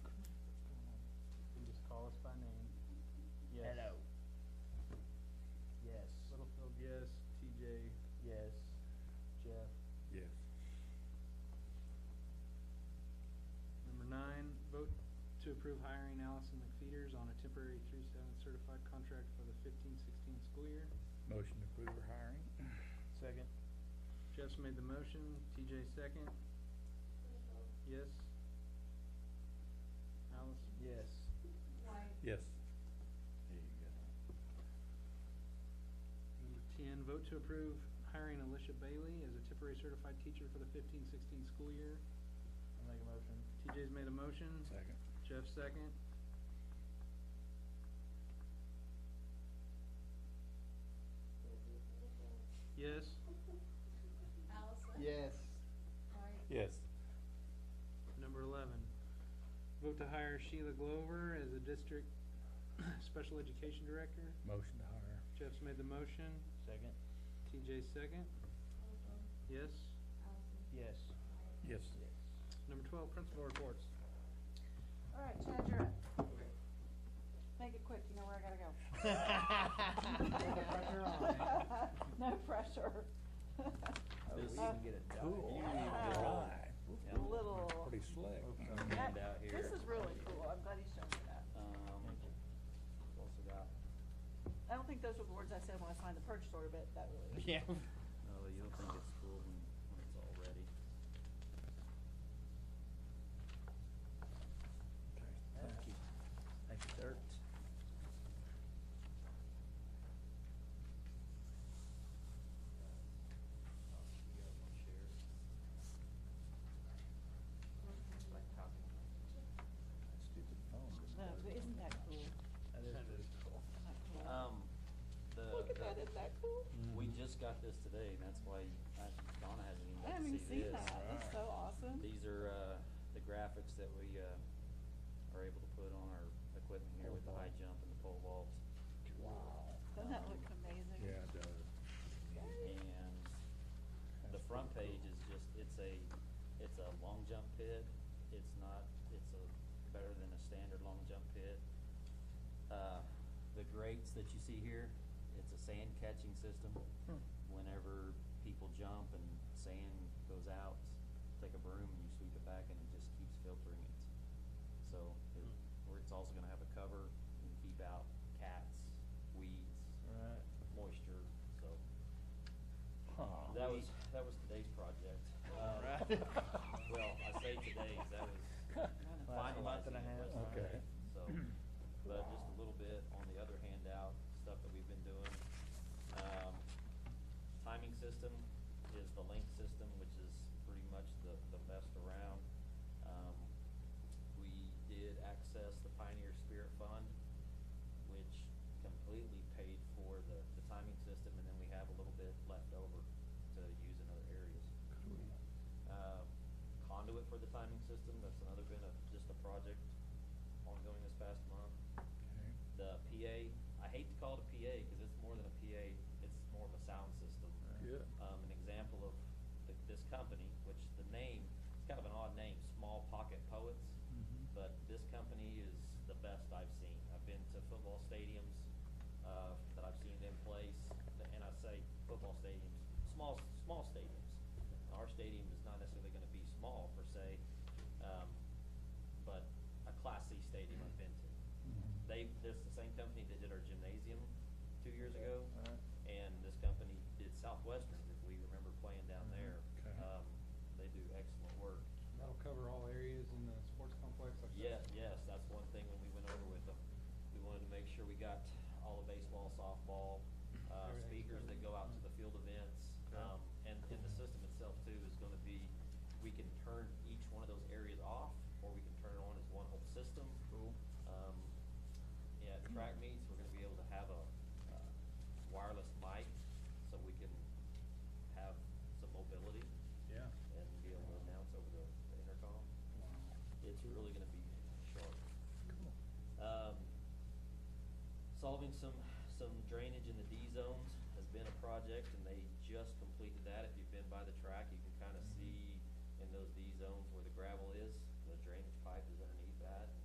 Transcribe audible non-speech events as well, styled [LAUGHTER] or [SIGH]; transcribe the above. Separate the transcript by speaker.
Speaker 1: approve hiring Allison McFeeters on a temporary three-seven certified contract for the fifteen-sixteen school year.
Speaker 2: Motion to approve her hiring.
Speaker 3: Second.
Speaker 1: Jeff's made the motion, TJ second. Yes? Allison?
Speaker 3: Yes.
Speaker 2: Yes.
Speaker 1: Number ten, vote to approve hiring Alicia Bailey as a temporary certified teacher for the fifteen-sixteen school year.
Speaker 3: I'll make a motion.
Speaker 1: TJ's made a motion,
Speaker 2: Second.
Speaker 1: Jeff second. Yes?
Speaker 4: Allison.
Speaker 3: Yes.
Speaker 4: Mike.
Speaker 2: Yes.
Speaker 1: Number eleven, vote to hire Sheila Glover as a district [COUGHS] special education director.
Speaker 2: Motion to hire.
Speaker 1: Jeff's made the motion,
Speaker 3: Second.
Speaker 1: TJ second.
Speaker 4: Holcomb.
Speaker 1: Yes?
Speaker 4: Allison.
Speaker 3: Yes.
Speaker 2: Yes.
Speaker 3: [LAUGHS]
Speaker 1: Number twelve, principal reports.
Speaker 5: All right, Chad, you're up. Make it quick, you know where I gotta go.
Speaker 3: Pressure on.
Speaker 5: No pressure. [LAUGHS]
Speaker 3: Oh, we
Speaker 2: This-
Speaker 3: didn't get a
Speaker 2: Cool.
Speaker 3: dime.
Speaker 5: Yeah.
Speaker 2: Drive.
Speaker 5: A
Speaker 3: Yeah.
Speaker 5: little.
Speaker 2: Pretty slick. I
Speaker 3: We're coming
Speaker 2: mean,
Speaker 5: That-
Speaker 3: out here.
Speaker 5: This is really cool, I'm glad you showed me that.
Speaker 3: Um, we've also got,
Speaker 5: I don't think those were the words I said when I signed the purchase order, but that really.
Speaker 3: yeah. No, you'll think it's cool when, when it's all ready. Thank you. Thank you, Dirk. You guys wanna share? Like copy.
Speaker 2: Stupid phone. didn't
Speaker 5: No,
Speaker 2: work.
Speaker 5: but isn't that cool? Isn't
Speaker 3: That is pretty cool.
Speaker 5: that cool?
Speaker 3: Um, the.
Speaker 5: Look at
Speaker 3: the- Mm,
Speaker 5: that, isn't that cool?
Speaker 3: We just got this today, and that's why I- Donna hasn't even
Speaker 5: I
Speaker 3: got to
Speaker 5: haven't
Speaker 3: see
Speaker 5: even
Speaker 3: this.
Speaker 5: seen that, that's
Speaker 2: Right.
Speaker 5: so awesome.
Speaker 3: These are, uh, the graphics that we, uh, are able to put on our equipment here
Speaker 5: Oh,
Speaker 3: with the high jump and the pole vault.
Speaker 2: Wow.
Speaker 5: Doesn't that look amazing?
Speaker 2: Yeah, it does.
Speaker 5: Yay.
Speaker 3: And the
Speaker 2: That's
Speaker 3: front
Speaker 2: pretty
Speaker 3: page
Speaker 2: cool.
Speaker 3: is just, it's a, it's a long jump pit, it's not, it's a, better than a standard long jump pit. Uh, the grates that you see here, it's a sand catching system. Whenever people jump and sand goes out, take a broom and you sweep it back and it just keeps filtering it. So, it, where it's also gonna have a cover and keep out cats, weeds,
Speaker 2: Right.
Speaker 3: moisture, so.
Speaker 2: Huh.
Speaker 3: That was, that was today's project. Um,
Speaker 2: Right. [LAUGHS]
Speaker 3: Well, I say today's, that [LAUGHS] was
Speaker 2: Last month
Speaker 3: finalizing
Speaker 2: and a
Speaker 3: it
Speaker 2: half.
Speaker 3: was Friday,
Speaker 2: Okay.
Speaker 3: so. But just a little bit on the other handout, stuff that we've been doing. Um, timing system is the link system, which is pretty much the, the best around. Um, we did access the Pioneer Spirit Fund, which completely paid for the, the timing system, and then we have a little bit left over to use in other areas. Um, conduit for the timing system, that's another been a, just a project ongoing this past month.
Speaker 2: Okay.
Speaker 3: The PA, I hate to call it a PA, cause it's more than a PA, it's more of a sound system.
Speaker 2: Yeah.
Speaker 3: Um, an example of th- this company, which the name, it's kind of an odd name, Small Pocket Poets,
Speaker 2: Mhm.
Speaker 3: but this company is the best I've seen. I've been to football stadiums, uh, that I've seen them place, and I say football stadiums, small, small stadiums. Our stadium is not necessarily gonna be small per se, um, but a Class C stadium I've been to.
Speaker 2: Mhm.
Speaker 3: They, this is the same company that did our gymnasium two years ago,
Speaker 2: Right.
Speaker 3: and this company did Southwestern, if we remember playing down there.
Speaker 2: Okay.
Speaker 3: Um, they do excellent work.
Speaker 1: That'll cover all areas in the sports complex, like
Speaker 3: Yeah, yes, that's one thing when we went over with them. We wanted to make sure we got all the baseball, softball, uh,
Speaker 1: Everything's
Speaker 3: speakers that go out to the field events.
Speaker 1: Okay.
Speaker 3: Um, and, and the system itself too is gonna be, we can turn each one of those areas off, or we can turn it on as one whole system.
Speaker 2: Cool.
Speaker 3: Um, yeah, at track meets, we're gonna be able to have a, uh, wireless mic, so we can have some mobility
Speaker 2: Yeah.
Speaker 3: and be able to announce over the the intercom.
Speaker 2: Wow.
Speaker 3: It's really gonna be sharp
Speaker 2: Cool.
Speaker 3: um, solving some, some drainage in the D zones has been a project, and they just completed that. If you've been by the track, you can kinda see in those D zones where the gravel is, the drainage pipe is